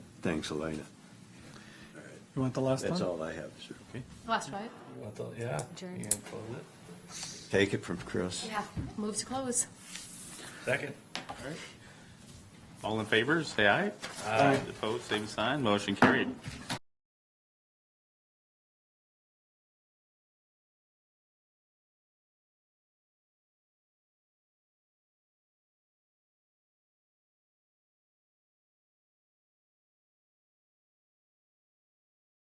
Thanks, Elena. You want the last That's one? all I have, sir. Last right? What the- Yeah. Adjourn. You can close it. Take it from Chris. Yeah. Move to close. Second. All in favor, say aye. Aye. Opposed, same sign, motion carried.